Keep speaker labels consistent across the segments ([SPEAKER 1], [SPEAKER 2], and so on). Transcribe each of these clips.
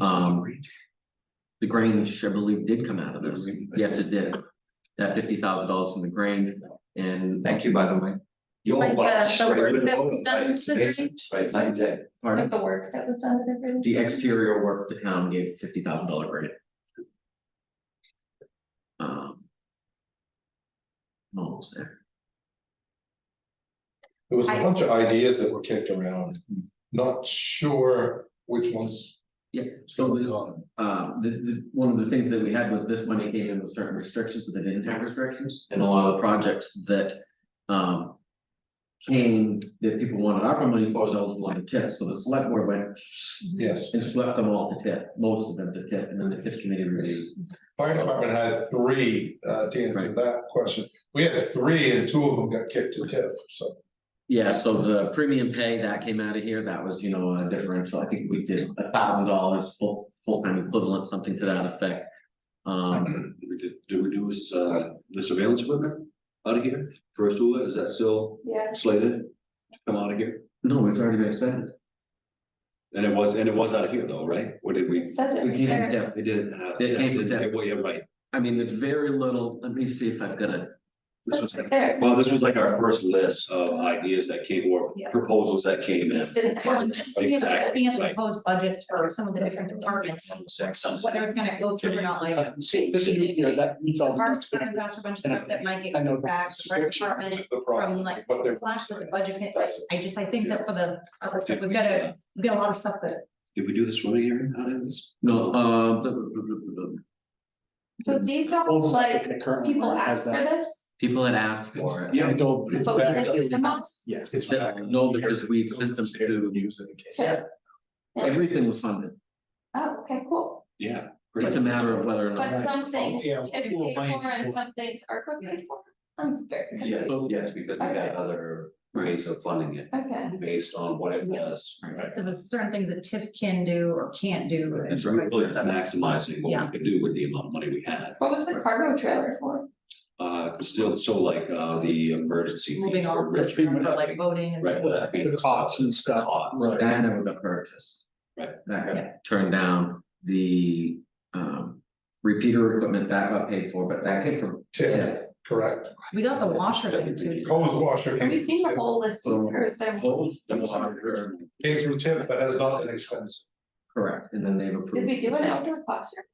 [SPEAKER 1] Um, The Grange, I believe, did come out of this.
[SPEAKER 2] Did we?
[SPEAKER 1] Yes, it did. That fifty thousand dollars from the Grange and.
[SPEAKER 2] Thank you, by the way. You're
[SPEAKER 3] Like, uh,
[SPEAKER 2] welcome.
[SPEAKER 3] the
[SPEAKER 2] Right,
[SPEAKER 3] work that was done to the
[SPEAKER 2] amazing.
[SPEAKER 3] bridge?
[SPEAKER 2] Right, night and day.
[SPEAKER 1] Pardon?
[SPEAKER 3] Like the work that was done to the bridge?
[SPEAKER 1] The exterior work, the town gave fifty thousand dollar grant. Um. I'm Almost there.
[SPEAKER 4] There was a
[SPEAKER 3] I-
[SPEAKER 4] bunch of ideas that were kicked around, not sure which ones.
[SPEAKER 1] Yeah, so the, uh, the, the, one of the things that we had was this money came in with certain restrictions, but they didn't have restrictions, and a lot of the projects that, um. Came, that people wanted ARPA money for was eligible on the TIF, so the select board went
[SPEAKER 4] Yes,
[SPEAKER 1] and swept them all to TIF, most of them to TIF, and then the TIF committee reviewed.
[SPEAKER 4] fire department had three, uh, to answer that question, we had three and two of them got kicked to tip, so.
[SPEAKER 1] Yeah, so the premium pay, that came out of here, that was, you know, a differential, I think we did a thousand dollars full, full-time equivalent, something to that effect. Um,
[SPEAKER 5] Did we do- did we do this, uh, the surveillance equipment out of here? First Ula, is that still
[SPEAKER 3] Yeah,
[SPEAKER 5] slated to come out of here?
[SPEAKER 1] no, it's already been expended,
[SPEAKER 5] And it was, and it was out of here though, right? What did
[SPEAKER 3] it
[SPEAKER 5] we?
[SPEAKER 3] says it
[SPEAKER 1] we
[SPEAKER 3] right
[SPEAKER 1] came to
[SPEAKER 3] there.
[SPEAKER 1] TIF,
[SPEAKER 5] They did. uh,
[SPEAKER 1] They came from
[SPEAKER 5] yeah,
[SPEAKER 1] Denver.
[SPEAKER 5] Well, you're right.
[SPEAKER 1] I mean, there's very little, let me see if I've got a,
[SPEAKER 5] This
[SPEAKER 3] It
[SPEAKER 5] was
[SPEAKER 3] says right there.
[SPEAKER 5] Well, this was like our first list of ideas that came or
[SPEAKER 6] Yeah.
[SPEAKER 5] proposals that came in.
[SPEAKER 3] These didn't
[SPEAKER 6] Well,
[SPEAKER 3] have.
[SPEAKER 6] just looking at, the-
[SPEAKER 5] Exactly,
[SPEAKER 6] looking at the
[SPEAKER 5] right.
[SPEAKER 6] proposed budgets for some of the different departments, whether it's gonna go through or not, like.
[SPEAKER 7] This is, you know, that meets all. the-
[SPEAKER 6] Parks department's asked for a bunch of stuff that might get
[SPEAKER 7] I know
[SPEAKER 6] kicked back,
[SPEAKER 7] the
[SPEAKER 6] the rec
[SPEAKER 7] restriction
[SPEAKER 6] department
[SPEAKER 4] That's the problem,
[SPEAKER 6] from like
[SPEAKER 4] but they're-
[SPEAKER 6] slash to the budget. hit.
[SPEAKER 4] That's it.
[SPEAKER 6] I just, I think that for the, other stuff, we've got
[SPEAKER 5] Did
[SPEAKER 6] a, we've got a lot of stuff that.
[SPEAKER 5] we do the swimming area out of this?
[SPEAKER 1] no, uh. blah, blah, blah, blah, blah, blah.
[SPEAKER 3] So these are
[SPEAKER 7] Old stuff
[SPEAKER 3] like,
[SPEAKER 7] that currently
[SPEAKER 3] people
[SPEAKER 7] has
[SPEAKER 3] asked for
[SPEAKER 7] that.
[SPEAKER 3] this,
[SPEAKER 1] People had asked for it.
[SPEAKER 7] And it don't- it's
[SPEAKER 3] but we
[SPEAKER 7] back
[SPEAKER 3] didn't do them
[SPEAKER 7] to-
[SPEAKER 3] all.
[SPEAKER 7] Yes, it's
[SPEAKER 1] That-
[SPEAKER 7] back.
[SPEAKER 1] no, because we system to-
[SPEAKER 7] Use it in case.
[SPEAKER 3] Yeah.
[SPEAKER 1] Everything was funded.
[SPEAKER 3] Oh, okay, cool.
[SPEAKER 5] Yeah.
[SPEAKER 1] It's a matter of whether or
[SPEAKER 3] But
[SPEAKER 1] not.
[SPEAKER 3] some things
[SPEAKER 7] Yeah,
[SPEAKER 3] TIF
[SPEAKER 7] little
[SPEAKER 3] paid
[SPEAKER 7] lines
[SPEAKER 3] for and
[SPEAKER 7] for-
[SPEAKER 3] some things are paid for. I'm very
[SPEAKER 5] Yeah,
[SPEAKER 3] confused.
[SPEAKER 5] yes, because we had other ways of funding it
[SPEAKER 3] Okay.
[SPEAKER 5] based on what it was. Right.
[SPEAKER 6] Cause there's certain things that TIF can do or can't do. and-
[SPEAKER 5] It's really maximizing what
[SPEAKER 6] Yeah.
[SPEAKER 5] we could do with the amount of money we had.
[SPEAKER 3] What was the cargo trailer for?
[SPEAKER 5] Uh, still, so like, uh, the emergency.
[SPEAKER 6] Moving all
[SPEAKER 5] on
[SPEAKER 6] of this,
[SPEAKER 7] Treatment.
[SPEAKER 6] for like voting and.
[SPEAKER 5] Right, well, I think.
[SPEAKER 7] The costs and stuff,
[SPEAKER 5] Costs.
[SPEAKER 7] right.
[SPEAKER 1] That never got purchased.
[SPEAKER 5] Right.
[SPEAKER 1] That
[SPEAKER 6] Yeah.
[SPEAKER 1] got turned down. The um repeater equipment that got paid for, but that came from
[SPEAKER 4] Tip,
[SPEAKER 1] TIF.
[SPEAKER 4] correct,
[SPEAKER 6] We got the washer thing too.
[SPEAKER 4] hose washer
[SPEAKER 3] Have
[SPEAKER 4] came
[SPEAKER 3] we
[SPEAKER 4] from
[SPEAKER 3] seen the
[SPEAKER 4] tip,
[SPEAKER 3] whole list
[SPEAKER 1] So-
[SPEAKER 3] or is there?
[SPEAKER 1] Hose, the water,
[SPEAKER 4] came from tip, but has not been expensive.
[SPEAKER 1] correct, and then they've approved.
[SPEAKER 3] Did we do an outdoor classroom,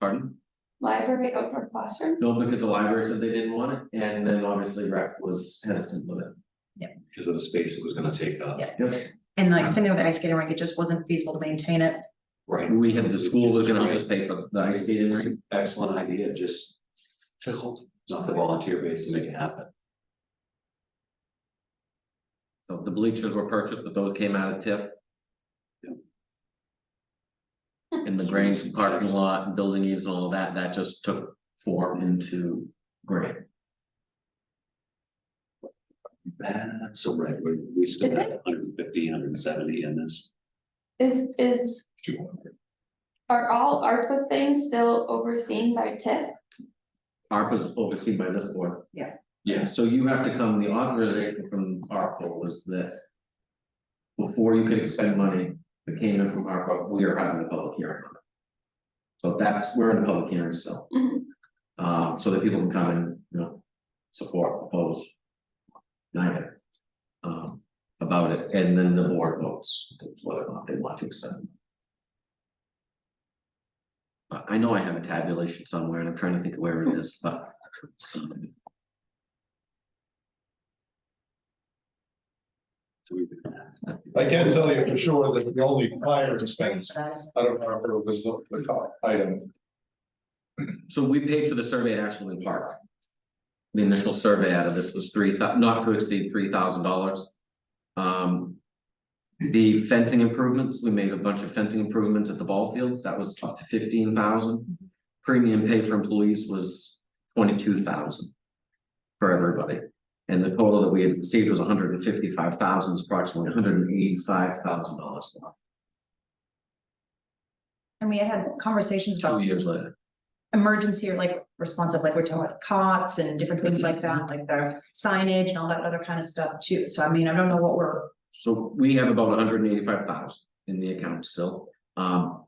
[SPEAKER 1] Pardon?
[SPEAKER 3] library outdoor classroom?
[SPEAKER 1] No, because the library said they didn't want it, and then obviously rec was hesitant with it.
[SPEAKER 5] Because of the space it was gonna take up.
[SPEAKER 6] Yeah. And like sitting with the ice skating rink, it just wasn't feasible to maintain it.
[SPEAKER 5] Right.
[SPEAKER 1] We had the school was gonna help us pay for the ice skating rink.
[SPEAKER 5] Excellent idea, just. Not the volunteer base to make it happen.
[SPEAKER 1] So The bleachers were purchased, but those came out of tip. And the Grange parking lot, and building use and all that, that just took form into grant.
[SPEAKER 5] That's so right, we, we still
[SPEAKER 3] Is
[SPEAKER 5] have 150, 170 in this.
[SPEAKER 3] Is, is, are all ARPA things still overseen by TIP?
[SPEAKER 1] ARPA is overseen by this board.
[SPEAKER 5] Yes.
[SPEAKER 1] So you have to come, the authorization from ARPA was this. Before you could expend money that came in from ARPA, we are having a public hearing on it. So that's, we're in a public hearing still.
[SPEAKER 3] Mhm.
[SPEAKER 1] Uh, so that people can come and, you know, support, oppose. Neither. Um, about it, and then the board votes whether or not they want to extend. it. But I know I have a tabulation somewhere and I'm trying to think of where it is, but. um,
[SPEAKER 4] I can tell you for sure that the only fire expense
[SPEAKER 6] That is-
[SPEAKER 4] out of our group was the, the top item.
[SPEAKER 1] So we paid for the survey at Ashland Park. The initial survey out of this was three thou- not to exceed three thousand dollars. Um. The fencing improvements, we made a bunch of fencing improvements at the ball fields, that was up to fifteen thousand. Premium pay for employees was twenty-two thousand. For everybody, and the total that we had received was 155000 hundred and fifty-five thousand, approximately hundred and eighty-five thousand dollars.
[SPEAKER 6] And we had had conversations about
[SPEAKER 1] Two years later.
[SPEAKER 6] emergency or like responsive, like we're talking about cots and different things like that, like the signage and all that other kind of stuff too. So I mean, I don't know what we're
[SPEAKER 1] So we have about hundred and eighty-five thousand in the account still. Um,